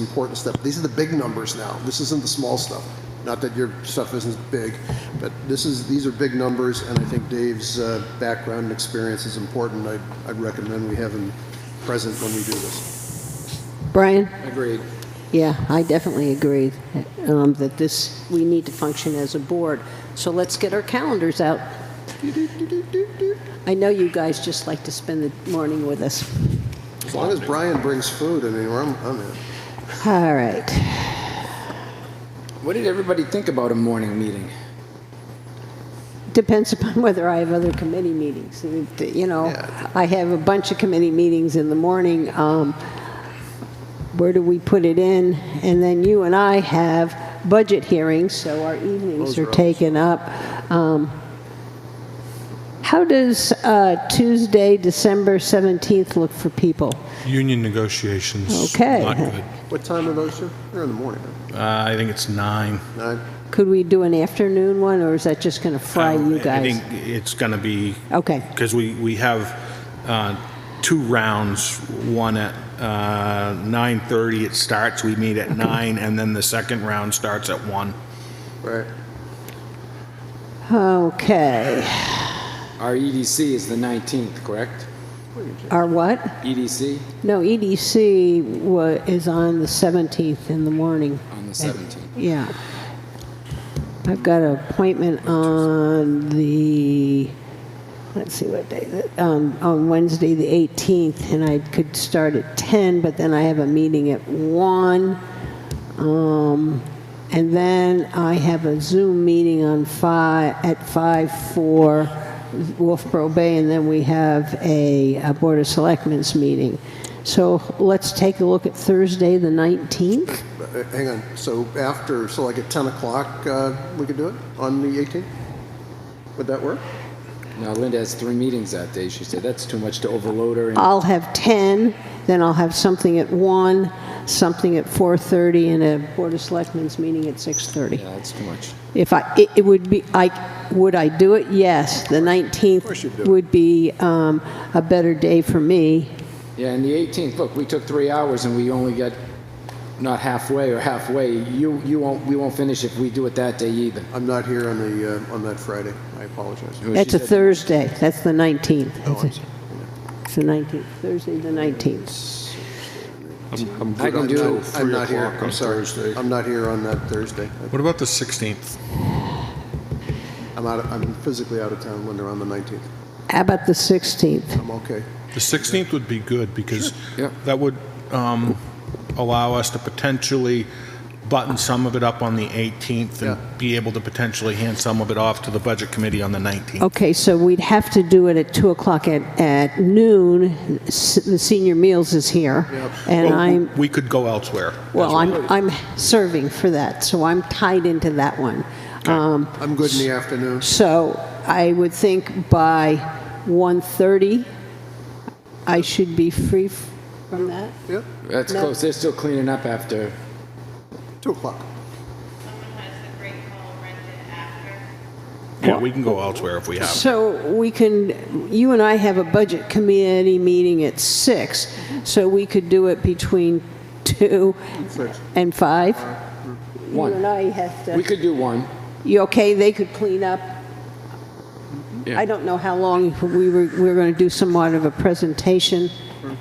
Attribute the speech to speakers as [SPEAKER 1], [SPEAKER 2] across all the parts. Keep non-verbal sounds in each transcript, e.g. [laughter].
[SPEAKER 1] important stuff. These are the big numbers now. This isn't the small stuff. Not that your stuff isn't big, but this is, these are big numbers, and I think Dave's uh, background and experience is important. I'd, I'd recommend we have him present when we do this.
[SPEAKER 2] Brian?
[SPEAKER 3] Agreed.
[SPEAKER 2] Yeah, I definitely agree um, that this, we need to function as a board. So let's get our calendars out. I know you guys just like to spend the morning with us.
[SPEAKER 1] As long as Brian brings food, I mean, I'm, I'm in.
[SPEAKER 2] All right.
[SPEAKER 3] What did everybody think about a morning meeting?
[SPEAKER 2] Depends upon [laughs] whether I have other committee meetings. You know, I have a bunch of committee meetings in the morning. Um, Where do we put it in? And then you and I have budget hearings, so our evenings are taken up. Um, How does uh, Tuesday, December 17th look for people?
[SPEAKER 4] Union negotiations.
[SPEAKER 2] Okay.
[SPEAKER 4] Not good.
[SPEAKER 1] What time are those, sir? They're in the morning,
[SPEAKER 4] Uh, I think it's nine.
[SPEAKER 1] right? Nine?
[SPEAKER 2] Could we do an afternoon one, or is that just going to fry
[SPEAKER 4] Um,
[SPEAKER 2] you
[SPEAKER 4] I
[SPEAKER 2] guys? Oh.
[SPEAKER 4] think it's going to be,
[SPEAKER 2] Okay,
[SPEAKER 4] because we, we have uh, two rounds, one at uh, 9:30 it starts, we meet at nine, and then the second round starts at one.
[SPEAKER 1] Right.
[SPEAKER 2] okay.
[SPEAKER 3] Our EDC is the 19th, correct? E
[SPEAKER 2] Our what?
[SPEAKER 3] EDC
[SPEAKER 2] No, EDC wa- is on the 17th in the morning.
[SPEAKER 3] on the 17th.
[SPEAKER 2] Yeah. I've got an appointment on the, let's see what day, that- um, on Wednesday, the 18th, and I could start at 10, but then I have a meeting at 1. Um, And then I have a Zoom meeting on 5, at 5 for Wolfboro Bay, and then we have a a Board of Selectmen's meeting. So let's take a look at Thursday, the 19th.
[SPEAKER 1] Uh, Hang on, so after, so like at 10 o'clock, uh, we could do it on the 18th? Would that work?
[SPEAKER 3] Now Linda has three meetings that day. She said that's too much to overload her. And
[SPEAKER 2] I'll have 10, then I'll have something at 1, something at 4:30, and a Board of Selectmen's meeting at 6:30.
[SPEAKER 3] yeah, that's too much.
[SPEAKER 2] If I, it- it would be, I, would I do it? Yes. The 19th would be um, a better day for me.
[SPEAKER 3] Yeah, and the 18th. Look, we took three hours and we only got not halfway or halfway. You you won't we won't finish if we do it that day either.
[SPEAKER 1] I'm not here on the, uh, on that Friday. I apologize.
[SPEAKER 3] She
[SPEAKER 2] That's a
[SPEAKER 3] said-
[SPEAKER 2] Thursday, that's the 19th.
[SPEAKER 1] Oh, I'm sorry.
[SPEAKER 2] It's the 19th, Thursday, the 19th.
[SPEAKER 1] I'm
[SPEAKER 3] I
[SPEAKER 1] good
[SPEAKER 3] can
[SPEAKER 1] on
[SPEAKER 3] do
[SPEAKER 1] that.
[SPEAKER 3] three
[SPEAKER 1] I'm not here,
[SPEAKER 4] o'clock
[SPEAKER 1] I'm
[SPEAKER 4] on
[SPEAKER 1] sorry.
[SPEAKER 4] Thursday.
[SPEAKER 1] I'm not here on that Thursday.
[SPEAKER 4] What about the 16th?
[SPEAKER 1] I'm out, of- I'm physically out of town, Linda, on the 19th.
[SPEAKER 2] How about the 16th?
[SPEAKER 1] I'm okay.
[SPEAKER 4] The 16th would be good because
[SPEAKER 3] Yeah.
[SPEAKER 4] that would um, allow us to potentially button some of it up on the 18th
[SPEAKER 1] Yeah.
[SPEAKER 4] and be able to potentially hand some of it off to the Budget Committee on the 19th.
[SPEAKER 2] Okay, so we'd have to do it at 2 o'clock at at noon. S- The senior meals is here, and
[SPEAKER 3] Oh.
[SPEAKER 4] Well,
[SPEAKER 2] I'm...
[SPEAKER 4] Oh, We could go elsewhere.
[SPEAKER 2] Well, I'm, I'm serving for that, so I'm tied into that one. Um,
[SPEAKER 1] I'm good in the afternoon.
[SPEAKER 2] So I would think by 1:30, I should be free f- from that?
[SPEAKER 1] Yeah,
[SPEAKER 3] That's
[SPEAKER 2] No.
[SPEAKER 3] close. They're still cleaning up after.
[SPEAKER 1] 2 o'clock.
[SPEAKER 5] someone has the great hall rented after.
[SPEAKER 4] Yeah, we can go elsewhere if we have. to.
[SPEAKER 2] So we can, you and I have a budget committee meeting at six, so we could do it between 2
[SPEAKER 1] Six.
[SPEAKER 2] and 5?
[SPEAKER 3] One.
[SPEAKER 2] You and I have
[SPEAKER 3] We
[SPEAKER 2] to,
[SPEAKER 3] could do one.
[SPEAKER 2] you okay, they could clean up I don't know how long we were, we were going to do somewhat of a presentation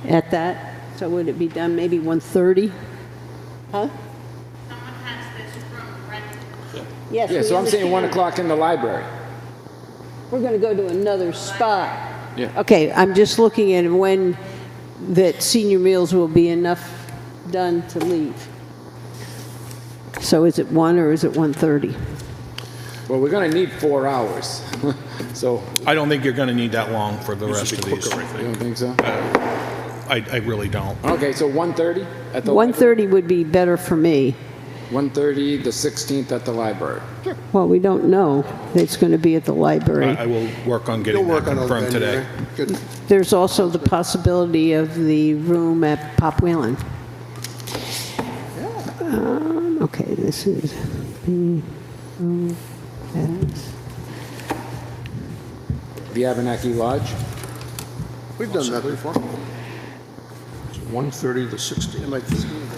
[SPEAKER 2] at that, so would it be done maybe 1:30?
[SPEAKER 5] Someone has this room rented.
[SPEAKER 2] Yes,
[SPEAKER 3] Yeah,
[SPEAKER 2] we
[SPEAKER 3] so I'm saying one
[SPEAKER 2] understand.
[SPEAKER 3] o'clock in the library.
[SPEAKER 2] We're going to go to another spot.
[SPEAKER 3] Yeah.
[SPEAKER 2] Okay, I'm just looking at when that senior meals will be enough done to leave. So is it 1 or is it 1:30?
[SPEAKER 3] Well, we're going to need four hours. [laughs] so,
[SPEAKER 4] I don't think you're going to need that long for the rest of these.
[SPEAKER 3] you don't think so?
[SPEAKER 4] I, I really don't.
[SPEAKER 3] Okay, so 1:30 at the
[SPEAKER 2] 1:30 would be better for me.
[SPEAKER 3] 1:30, the 16th at the library.
[SPEAKER 2] Well, we don't know. It's going to be at the library.
[SPEAKER 4] I I will work on
[SPEAKER 1] You'll
[SPEAKER 4] getting that
[SPEAKER 1] work on a
[SPEAKER 4] confirmed
[SPEAKER 1] venue,
[SPEAKER 4] today.
[SPEAKER 1] right? Good.
[SPEAKER 2] There's also the possibility of the room at Pop Whalen. Um, Okay, this is B, O, S.
[SPEAKER 3] The Abenaki Lodge.
[SPEAKER 1] We've done that before.
[SPEAKER 6] 1:30 to 16.
[SPEAKER 1] Am I-